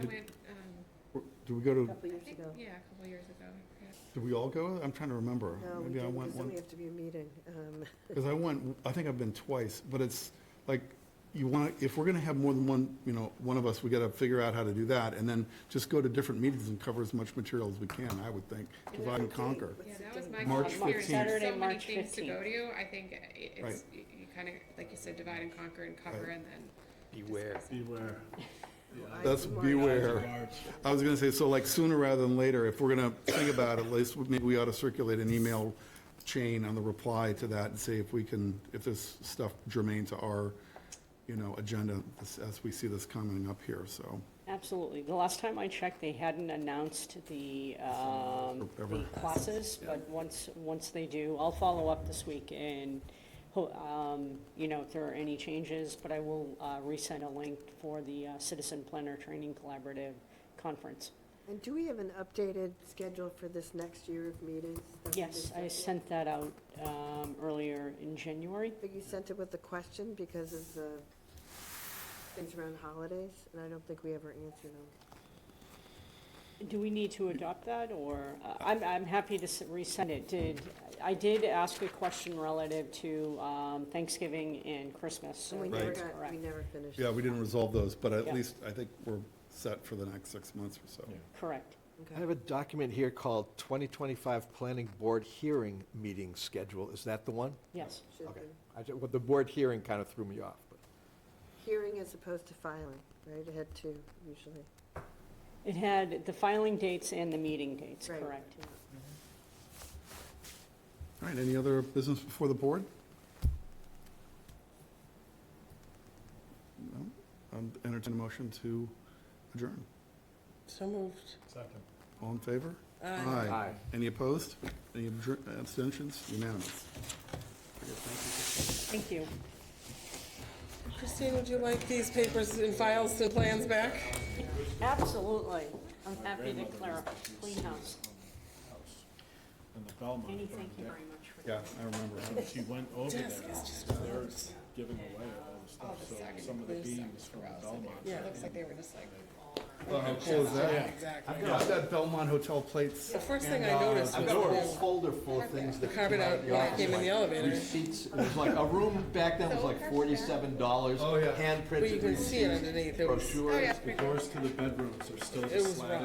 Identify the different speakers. Speaker 1: Did we go
Speaker 2: a
Speaker 1: to,
Speaker 2: couple
Speaker 3: um, I
Speaker 2: years
Speaker 3: think,
Speaker 2: ago.
Speaker 3: yeah, a couple years ago. yeah.
Speaker 1: did we all go? I'm trying to remember.
Speaker 2: No, we
Speaker 1: Maybe I
Speaker 2: didn't,
Speaker 1: went
Speaker 2: because then
Speaker 1: one,
Speaker 2: we have to be a meeting. Um,
Speaker 1: because I went, I think I've been twice, but it's like, you want, if we're going to have more than one, you know, one of us, we got to figure out how to do that, and then just go to different meetings and cover as much material as we can, I would think, divide and conquer.
Speaker 2: What's
Speaker 3: Yeah,
Speaker 2: the
Speaker 3: that was
Speaker 2: date?
Speaker 3: my
Speaker 1: March
Speaker 3: experience. There's
Speaker 1: 15th.
Speaker 4: Saturday,
Speaker 3: so many
Speaker 4: March
Speaker 3: things to go
Speaker 4: 15th.
Speaker 3: to. I think i- it's, you you kind of, like you said, divide and conquer and cover
Speaker 1: Right.
Speaker 3: and then.
Speaker 5: Beware.
Speaker 6: Beware.
Speaker 2: I-
Speaker 1: That's
Speaker 2: March.
Speaker 1: beware. I was going to say, so like sooner rather than later, if we're going to think about it, at least maybe we ought to circulate an email chain on the reply to that and see if we can, if there's stuff germane to our, you know, agenda as- as we see this coming up here, so.
Speaker 4: Absolutely. The last time I checked, they hadn't announced the, um, the
Speaker 1: Forever.
Speaker 4: classes, but once, once they do, I'll follow up this week and, ho- um, you know, if there are any changes, but I will, uh, resend a link for the uh, Citizen Planner Training Collaborative Conference.
Speaker 2: And do we have an updated schedule for this next year of meetings? that we
Speaker 4: Yes, I
Speaker 2: did send?
Speaker 4: sent that out, um, earlier in January.
Speaker 2: But you sent it with a question because of the things around holidays, and I don't think we ever answered them.
Speaker 4: Do we need to adopt that, or, uh, I'm, I'm happy to s- resend it. Did, I did ask a question relative to um, Thanksgiving and Christmas. so
Speaker 2: And we never
Speaker 1: Right.
Speaker 4: that's
Speaker 2: got,
Speaker 4: correct.
Speaker 2: we never finished.
Speaker 1: Yeah, we didn't resolve those, but at
Speaker 4: Yeah.
Speaker 1: least I think we're set for the next six months or so.
Speaker 4: Correct.
Speaker 2: Okay.
Speaker 5: I have a document here called 2025 Planning Board Hearing Meeting Schedule. Is that the one?
Speaker 4: Yes,
Speaker 2: Should
Speaker 5: Okay.
Speaker 2: be.
Speaker 5: I ju- well, The board hearing kind of threw me off, but.
Speaker 2: Hearing as opposed to filing, right? It had two usually.
Speaker 4: it had the filing dates and the meeting dates,
Speaker 2: Right.
Speaker 4: correct.
Speaker 1: All right, any other business before the board? No? Um, Entertain a motion to adjourn.
Speaker 7: So moved.
Speaker 6: Second.
Speaker 1: All in favor?
Speaker 5: Aye.
Speaker 1: Any opposed? Any abjur- abstentions? Unanimous.
Speaker 4: Thank you.
Speaker 7: Christine, would you like these papers and files and plans back?
Speaker 4: Absolutely. I'm happy to clear up, clean house.
Speaker 6: And the Belmont.
Speaker 4: Annie,
Speaker 6: burned
Speaker 4: thank you
Speaker 6: down.
Speaker 4: very much for
Speaker 1: Yeah, I remember.
Speaker 6: She went over there,
Speaker 7: Desk is just
Speaker 6: they're giving away all the
Speaker 3: All
Speaker 6: stuff,
Speaker 3: the
Speaker 6: so
Speaker 3: second
Speaker 6: some of the
Speaker 3: glue
Speaker 6: beams
Speaker 3: sucks
Speaker 6: from the
Speaker 3: gross.
Speaker 6: Belmont.
Speaker 3: It looks like they were just like.
Speaker 1: Well, how cool is that?
Speaker 7: Exactly.
Speaker 1: I've got, I've got Belmont Hotel plates.
Speaker 7: The first thing
Speaker 5: And,
Speaker 7: I
Speaker 5: uh,
Speaker 7: noticed
Speaker 5: I've
Speaker 7: was
Speaker 5: got a whole
Speaker 7: the
Speaker 5: folder full of things that.
Speaker 7: carpet
Speaker 5: came
Speaker 7: out
Speaker 5: of
Speaker 7: when I came in the
Speaker 5: office, like
Speaker 7: elevator.
Speaker 5: Receipts, it was like, a room back then was like forty-seven dollars.
Speaker 1: Oh, yeah.
Speaker 7: Well, you
Speaker 5: Handprinted
Speaker 7: can see it
Speaker 5: receipts,
Speaker 7: underneath. It was, Oh,
Speaker 5: brochures.
Speaker 6: The doors to the bedrooms are still
Speaker 7: It was
Speaker 6: just slatted.